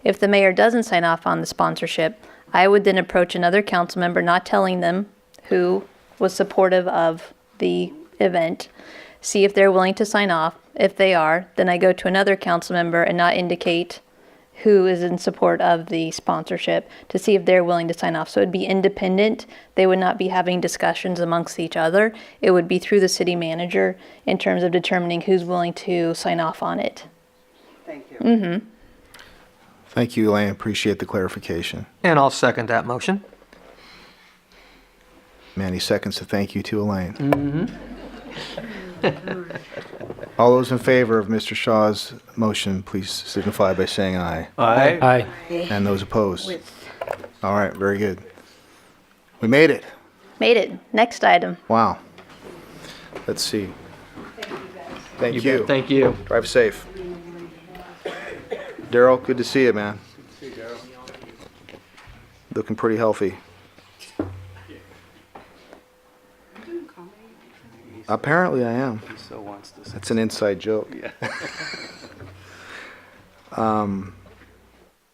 If the mayor doesn't sign off on the sponsorship, I would then approach another council member, not telling them who was supportive of the event, see if they're willing to sign off. If they are, then I go to another council member and not indicate who is in support of the sponsorship to see if they're willing to sign off. So it'd be independent. They would not be having discussions amongst each other. It would be through the city manager in terms of determining who's willing to sign off on it. Thank you. Thank you, Elaine. Appreciate the clarification. And I'll second that motion. Manny seconds to thank you to Elaine. All those in favor of Mr. Shaw's motion, please signify by saying aye. Aye. Aye. And those opposed? All right, very good. We made it. Made it. Next item. Wow. Let's see. Thank you. Thank you. Drive safe. Daryl, good to see you, man. Looking pretty healthy. Apparently I am. He so wants to. That's an inside joke. Um,